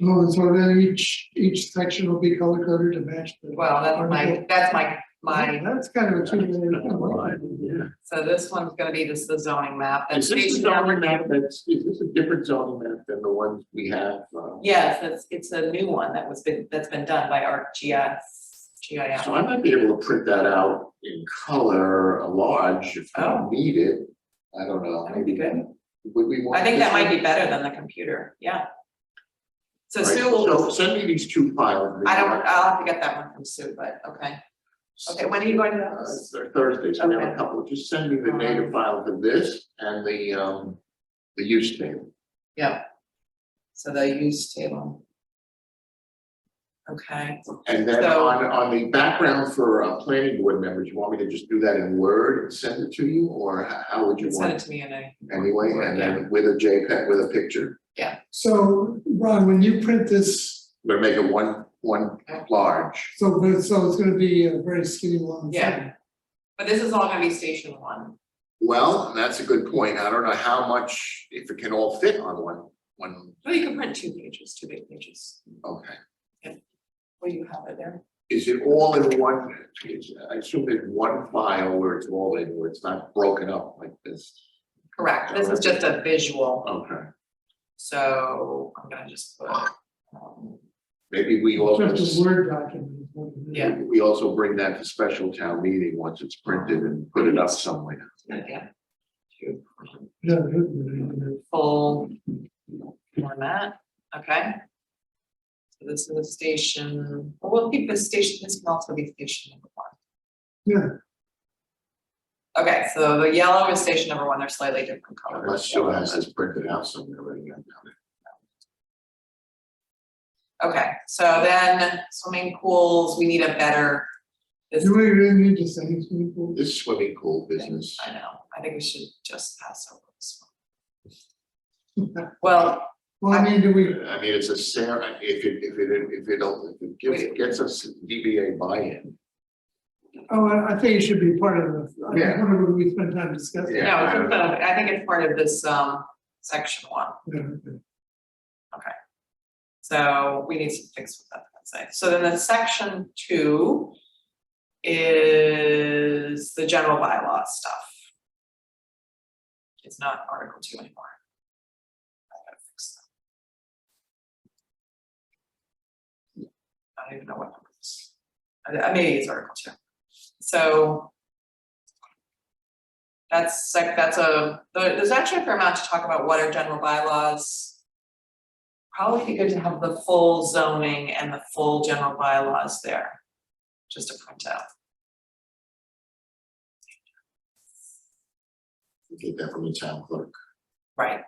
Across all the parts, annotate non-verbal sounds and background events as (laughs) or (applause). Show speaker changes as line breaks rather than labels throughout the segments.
Oh, so then each, each section will be color coded to match the.
Well, that's my, that's my, my,
That's kind of a two minute.
Is
so this one's gonna be just the zoning map. That's
this a
station number
zoning map
two.
that's, is this a different zoning map than the ones we have? uh,
Yes, that's, it's a new one that was been, that's been done by ArcGIS, GIS.
So I might be able to print that out in color, a large, if I
Oh.
need it. I don't know,
That'd be
maybe,
good.
would we want?
I think that
this
might be better than the computer, yeah. So
one?
Sue
Right,
will,
So send me these two files. Uh,
I don't, I'll have to get that one from Sue, but, okay, okay, when are you going to
Uh,
those?
Thur- Thursday, so I have
Okay.
a couple, just send me the native file for this and the, um, the use table.
Yeah. So the use table. Okay,
And then
So-
on, on the background for, uh, planning board members, you want me to just do that in Word and send it to you, or h- how would you
send
want?
it
it
to me in a,
Anyway, and then with a JPEG, with a picture,
So, Ron, when you print this,
but make it one, one large.
so, but- so it's gonna be a very skinny one.
Yeah. but this is all gonna be station one.
Well, that's a good point, I don't know how much, if it can all fit on one, one,
Well, you can print two pages, two big pages.
okay.
Will you have it there?
Is it all in one, is, I assume it's one file where it's all in, where it's not broken up like this?
Correct, this is just a visual,
Okay,
so I'm gonna just put. um,
maybe we also.
Just a Word document. is what it is.
Yeah.
We also bring that to special town meeting once it's printed and put it up somewhere.
Yeah. To
Yeah, it is.
full format, okay? So This is a station, well, we'll keep this station, this can also be station number one.
Yeah,
Okay, so the yellow is station number one, they're slightly different colors.
Unless Sue has this printed out somewhere already.
Okay, so then swimming pools, we need a better, this
do we really need to say anything?
This swimming pool business,
I know, I think we should just pass over this one.
one.
Well,
Well, I mean, do we,
I mean, it's a Sarah, if it, if it, if it, don't- if it
Wait.
gives, gets us DBA buy-in.
oh, I, I think it should be part of the, I think
Yeah.
whatever we spend time discussing.
no,
Yeah.
I think that- I think it's part of this um section one,
Yeah, okay.
so we need some fix with that, I'd say. So then the section two is the general bylaw stuff. It's not article two anymore. I gotta fix that. I don't even know what number it is. I I maybe it's article two. So. That's like, that's a, there- there's actually a fair amount to talk about what are general bylaws. Probably be good to have the full zoning and the full general bylaws there, just to print out.
Get that from the town clerk.
Right,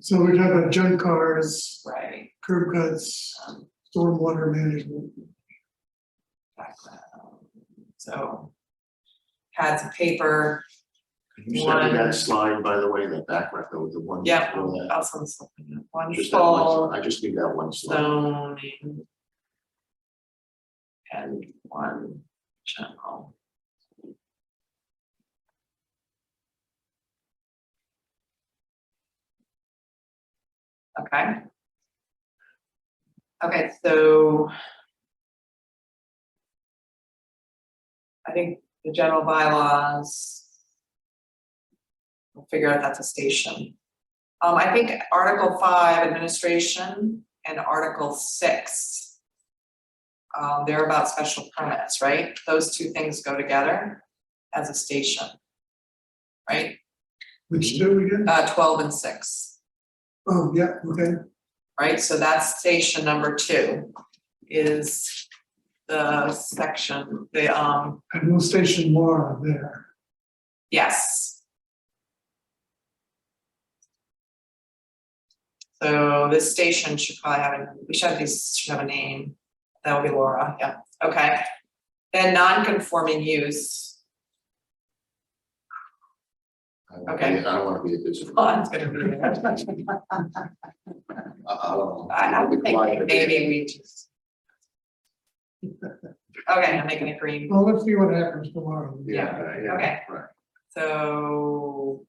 So we're talking about junk cars,
right.
curb cuts,
um,
stormwater management.
background. So. Pads of paper,
Can you send me that slide, by the way, that background, though, the one.
yeah,
before that?
also something
Just that
wonderful.
one slide. I just need that one slide.
zoning. And one general. Okay. Okay, so. I think the general bylaws. We'll figure out that's a station. Um, I think Article five, administration, and Article six. Um, they're about special permits, right? Those two things go together as a station. Right,
Which do we get?
uh, twelve and six,
Oh, yeah, okay.
right? So that's station number two is the section, the, um,
And we'll station Laura there.
yes. So this station should probably have, a we should have these, should have a name. That would be Laura, yeah, okay. Then non-conforming use, (laughs)
I don't wanna
okay.
be- I don't wanna be a business. (laughs)
Lon's gonna be there.
I, I don't know.
I, I'm
Be quiet
thinking
a bit.
maybe we just. (laughs) Okay, I'm making a green,
Well, let's see what happens tomorrow.
Yeah, yeah.
Okay.
Right.
so